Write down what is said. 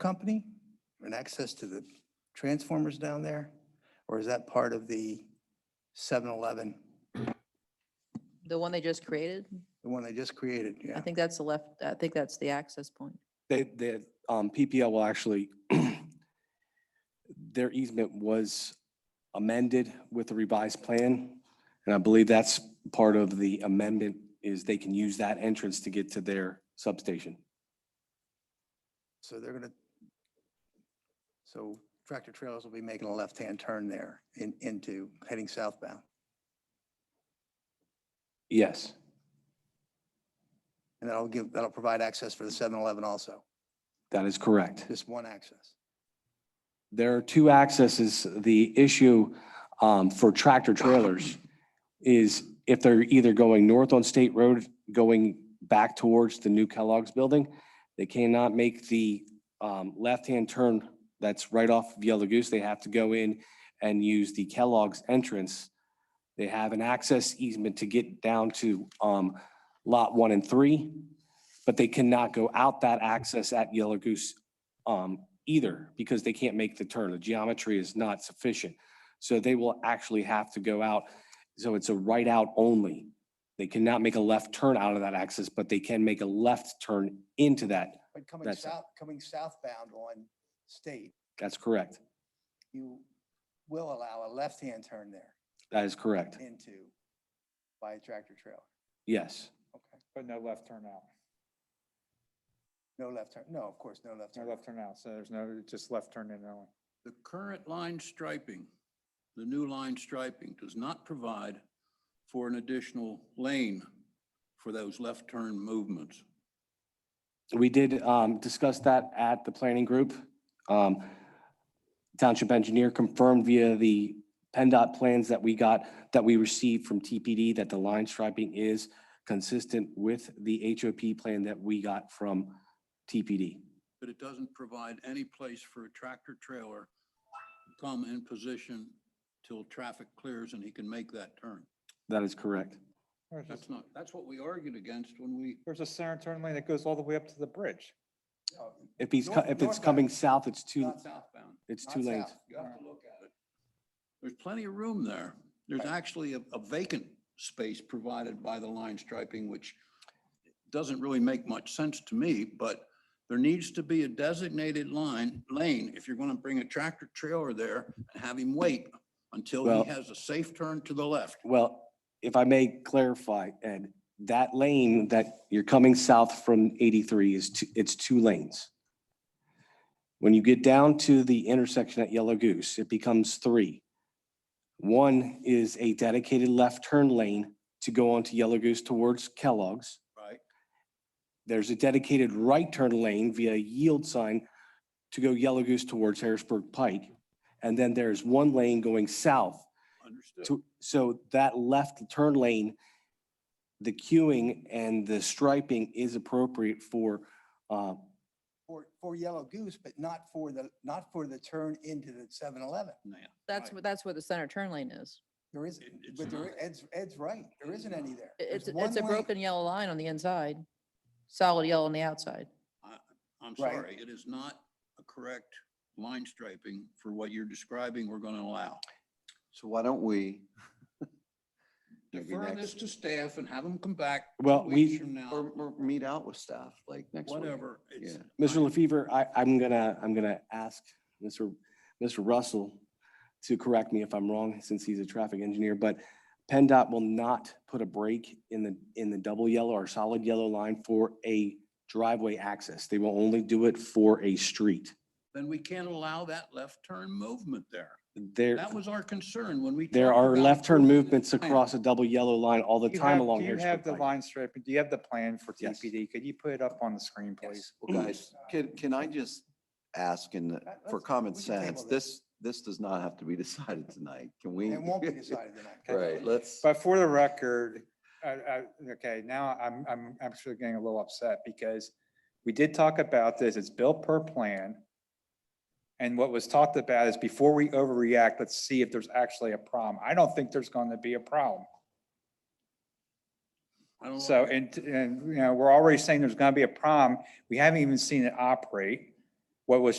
company and access to the transformers down there? Or is that part of the 7-Eleven, The one they just created? the one they just created? I Yeah. think that's the left, I think that's the access point. They, the, um, PPL will actually, their easement was amended with the revised plan. And I believe that's part of the amendment is they can use that entrance to get to their substation. So they're gonna, so tractor trailers will be making a left-hand turn there in, into, heading southbound. Yes, And that'll give, that'll provide access for the 7-Eleven also, that is correct. just one access. There are two accesses. The issue um, for tractor trailers is if they're either going north on State Road, going back towards the new Kellogg's building, they cannot make the um, left-hand turn that's right off of Yellow Goose. They have to go in and use the Kellogg's entrance. They have an access easement to get down to um, Lot 1 and 3, but they cannot go out that access at Yellow Goose um, either because they can't make the turn. The geometry is not sufficient. So they will actually have to go out. So it's a right out only. They cannot make a left turn out of that axis, but they can make a left turn into that. But coming That's it. south, coming southbound on State, That's correct. you will allow a left-hand turn there That is correct. into by a tractor trailer. Yes. Okay. But no left turn out, No left turn, no, of course, no left no turn. left turn out, so there's no, just left turn in only. The current line striping, the new line striping does not provide for an additional lane for those left turn movements. We did um, discuss that at the planning group. Um, Township engineer confirmed via the PennDOT plans that we got, that we received from TPD, that the line striping is consistent with the HOP plan that we got from TPD. But it doesn't provide any place for a tractor trailer to come in position till traffic clears and he can make that turn. That is correct. There's That's just- not, that's what we argued against when we, There's a center turn lane that goes all the way up to the bridge. Oh, If he's, co- North- if it's northbound. coming south, it's two, Not southbound, it's not two lanes. south. you have to look at it. There's plenty of room there. There's actually a a vacant space provided by the line striping, which doesn't really make much sense to me, but there needs to be a designated line, lane, if you're going to bring a tractor trailer there and have him wait until Well- he has a safe turn to the left. Well, if I may clarify, Ed, that lane that you're coming south from 83 is, two- it's two lanes. When you get down to the intersection at Yellow Goose, it becomes three. One is a dedicated left turn lane to go onto Yellow Goose towards Kellogg's. Right. There's a dedicated right turn lane via yield sign to go Yellow Goose towards Harrisburg Pike. And then there's one lane going south Understood. to, so that left turn lane, the queuing and the striping is appropriate for, uh, For, for Yellow Goose, but not for the, not for the turn into the 7-Eleven. Now, That's Right. where, that's where the center turn lane is. There is, It- it's but there, not. Ed's, Ed's right. There isn't any there. I- There's It's, one it's a lane. broken yellow line on the inside, solid yellow on the outside. I'm Right. sorry, it is not a correct line striping for what you're describing we're going to allow. So why don't we? maybe Defer next- this to staff and have them come back. two Well, we- weeks From now. Or, or meet out with staff, like next week? Whatever. it's- Yeah. Mr. I- LaFever, I, I'm gonna, I'm gonna ask Mr. Mr. Russell to correct me if I'm wrong, since he's a traffic engineer, but PennDOT will not put a break in the, in the double yellow or solid yellow line for a driveway access. They will only do it for a street. Then we can't allow that left turn movement there. There, That was our concern when we. there talked are about left turn approving this movements plan. across a double yellow line all the Do you time have- along Do you here. have the line striping, do you have the plan for Yes. TPD? Could you put it up on the screen, please? Well, guys, can, can I just ask and Let- for let's- common we can table sense, this, this does not have to be decided tonight. Can we? It won't be decided tonight. Right, let's, But for the record, I, I, okay, now I'm, I'm actually getting a little upset because we did talk about this, it's built per plan. And what was talked about is before we overreact, let's see if there's actually a problem. I don't think there's going to be a problem. I don't So, like it. and, and, you know, we're already saying there's gonna be a problem. We haven't even seen it operate. What was